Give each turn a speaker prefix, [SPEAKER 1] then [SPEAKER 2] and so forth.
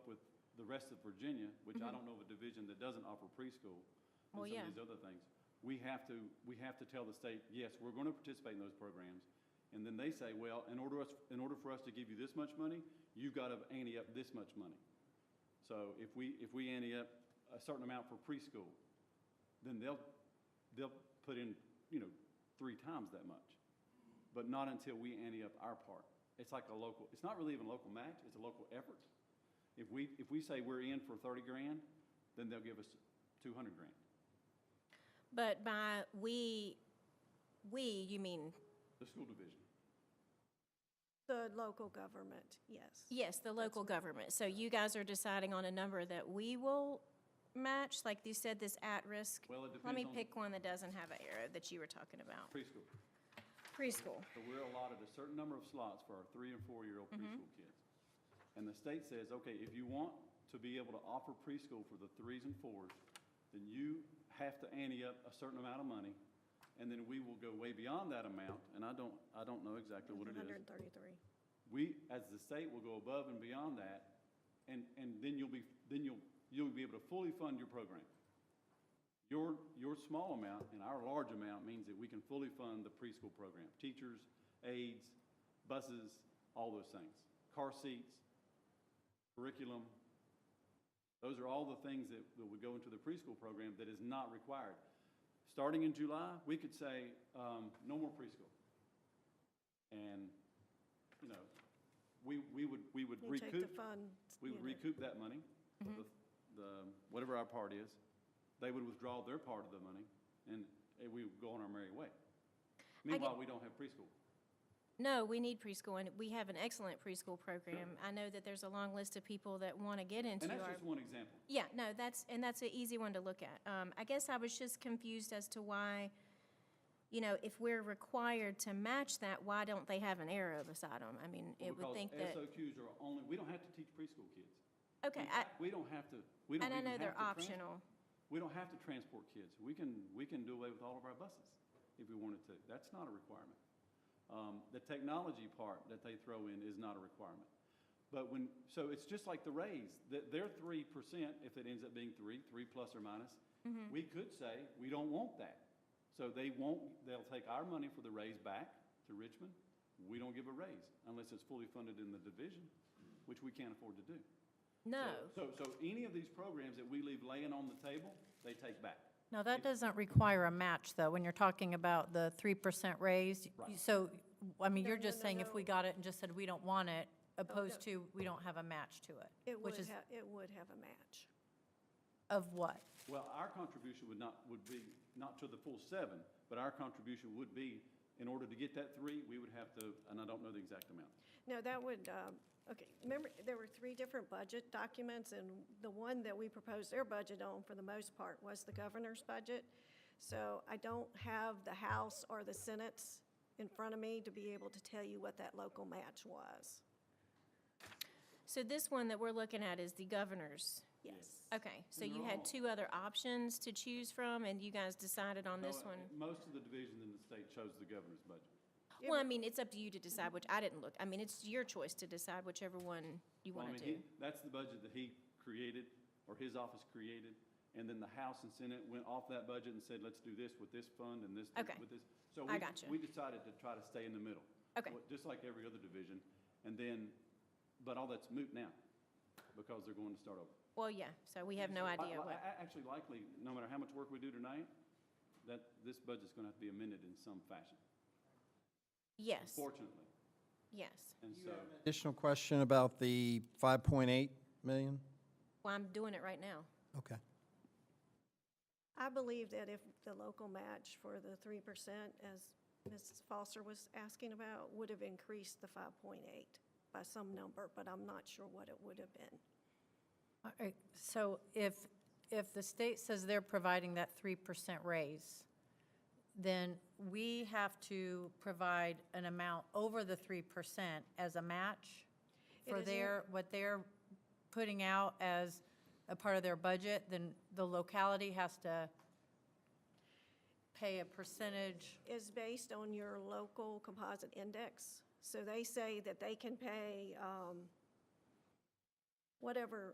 [SPEAKER 1] the rest of Virginia, which I don't know of a division that doesn't offer preschool
[SPEAKER 2] Mm-hmm. Well,
[SPEAKER 1] and some
[SPEAKER 2] yeah.
[SPEAKER 1] of these other things, we have to, we have to tell the state, yes, we're going to participate in those programs. And then they say, well, in order us, in order for us to give you this much money, you've got to ante up this much money. So if we, if we ante up a certain amount for preschool, then they'll, they'll put in, you know, three times that much. But not until we ante up our part. It's like a local, it's not really even a local match, it's a local effort. If we, if we say we're in for thirty grand, then they'll give us two hundred grand.
[SPEAKER 2] But by we, we, you mean,
[SPEAKER 1] The school division.
[SPEAKER 3] The local government, yes.
[SPEAKER 2] yes, the local government. So you guys are deciding on a number that we will match, like you said, this at-risk?
[SPEAKER 1] Well, it
[SPEAKER 2] Let me
[SPEAKER 1] depends on-
[SPEAKER 2] pick one that doesn't have an arrow that you were talking about.
[SPEAKER 1] Preschool.
[SPEAKER 2] Preschool.
[SPEAKER 1] So we're allotted a certain number of slots for our three and four-year-old preschool kids. And the state says, okay, if you want to be able to offer preschool for the threes and fours, then you have to ante up a certain amount of money, and then we will go way beyond that amount, and I don't, I don't know exactly what it is.
[SPEAKER 3] 133.
[SPEAKER 1] We, as the state, will go above and beyond that, and, and then you'll be, then you'll, you'll be able to fully fund your program. Your, your small amount and our large amount means that we can fully fund the preschool program, teachers, aides, buses, all those things, car seats, curriculum. Those are all the things that, that would go into the preschool program that is not required. Starting in July, we could say, um, no more preschool. And, you know, we, we would, we would
[SPEAKER 3] You take the
[SPEAKER 1] recoup
[SPEAKER 3] fund.
[SPEAKER 1] we would
[SPEAKER 3] unit.
[SPEAKER 1] recoup that money,
[SPEAKER 2] Mm-hmm.
[SPEAKER 1] the, the, whatever our part is. They would withdraw their part of the money, and eh, we would go on our merry way. Meanwhile, we don't have preschool.
[SPEAKER 2] No, we need preschool, and we have an excellent preschool program. I know that there's a long list of people that want to get into
[SPEAKER 1] And
[SPEAKER 2] our.
[SPEAKER 1] that's just one example.
[SPEAKER 2] Yeah, no, that's, and that's an easy one to look at. Um, I guess I was just confused as to why, you know, if we're required to match that, why don't they have an arrow beside them? I mean, it would think that,
[SPEAKER 1] Because SOQs are only, we don't have to teach preschool kids.
[SPEAKER 2] okay,
[SPEAKER 1] In
[SPEAKER 2] I,
[SPEAKER 1] fact, We don't have to, we don't
[SPEAKER 2] and I
[SPEAKER 1] even
[SPEAKER 2] know
[SPEAKER 1] have to.
[SPEAKER 2] they're
[SPEAKER 1] trans-
[SPEAKER 2] optional.
[SPEAKER 1] We don't have to transport kids. We can, we can do away with all of our buses if we wanted to. That's not a requirement. Um, the technology part that they throw in is not a requirement. But when, so it's just like the raise, that their three percent, if it ends up being three, three plus or minus, we could say, we don't want that. So they won't, they'll take our money for the raise back to Richmond. We don't give a raise unless it's fully funded in the division, which we can't afford to do.
[SPEAKER 2] No,
[SPEAKER 1] So, so so any of these programs that we leave laying on the table, they take back.
[SPEAKER 4] Now, that doesn't require a match, though, when you're talking about the 3% raise.
[SPEAKER 1] Right.
[SPEAKER 4] So, I mean,
[SPEAKER 3] No,
[SPEAKER 4] you're
[SPEAKER 3] no,
[SPEAKER 4] just
[SPEAKER 3] no,
[SPEAKER 4] saying if we
[SPEAKER 3] no. Oh,
[SPEAKER 4] got it and just said we don't want it, opposed to we don't have a match to it,
[SPEAKER 3] It would
[SPEAKER 4] which is
[SPEAKER 3] have, it would have a match.
[SPEAKER 4] of what?
[SPEAKER 1] Well, our contribution would not, would be, not to the full seven, but our contribution would be, in order to get that three, we would have to, and I don't know the exact amount.
[SPEAKER 3] No, that would, um, okay, remember, there were three different budget documents, and the one that we proposed their budget on, for the most part, was the governor's budget. So I don't have the House or the Senate in front of me to be able to tell you what that local match was.
[SPEAKER 2] so this one that we're looking at is the governor's.
[SPEAKER 3] Yes.
[SPEAKER 2] Okay, so
[SPEAKER 1] And
[SPEAKER 2] you
[SPEAKER 1] they're
[SPEAKER 2] had
[SPEAKER 1] all-
[SPEAKER 2] two other options to choose from, and you guys decided on this
[SPEAKER 1] So, uh,
[SPEAKER 2] one?
[SPEAKER 1] Most of the divisions in the state chose the governor's budget.
[SPEAKER 2] Well, I mean, it's up to you to decide which, I didn't look, I mean, it's your choice to decide whichever one you
[SPEAKER 1] Well, I
[SPEAKER 2] want to
[SPEAKER 1] mean, he-
[SPEAKER 2] do.
[SPEAKER 1] That's the budget that he created, or his office created, and then the House and Senate went off that budget and said, let's do this with this fund and this,
[SPEAKER 2] Okay.
[SPEAKER 1] with this. So
[SPEAKER 2] I
[SPEAKER 1] we-
[SPEAKER 2] gotcha.
[SPEAKER 1] We decided to try to stay in the middle.
[SPEAKER 2] Okay.
[SPEAKER 1] Well, Just like every other division, and then, but all that's moot now, because they're going to start over.
[SPEAKER 2] Well, yeah, so we have no
[SPEAKER 1] Li-
[SPEAKER 2] idea
[SPEAKER 1] li-
[SPEAKER 2] what.
[SPEAKER 1] a- Actually, likely, no matter how much work we do tonight, that, this budget's gonna have to be amended in some fashion,
[SPEAKER 2] Yes,
[SPEAKER 1] fortunately.
[SPEAKER 2] yes.
[SPEAKER 1] And so,
[SPEAKER 5] Additional question about the 5.8 million?
[SPEAKER 2] Well, I'm doing it right now.
[SPEAKER 5] Okay.
[SPEAKER 3] I believe that if the local match for the three percent, as Mrs. Foster was asking about, would have increased the five point eight by some number, but I'm not sure what it would have been.
[SPEAKER 4] All right, So if, if the state says they're providing that 3% raise, then we have to provide an amount over the 3% as a match
[SPEAKER 3] It
[SPEAKER 4] for
[SPEAKER 3] is
[SPEAKER 4] their, what they're putting out as a part of their budget, then the locality has to pay a percentage.
[SPEAKER 3] Is based on your local composite index. So they say that they can pay, um, whatever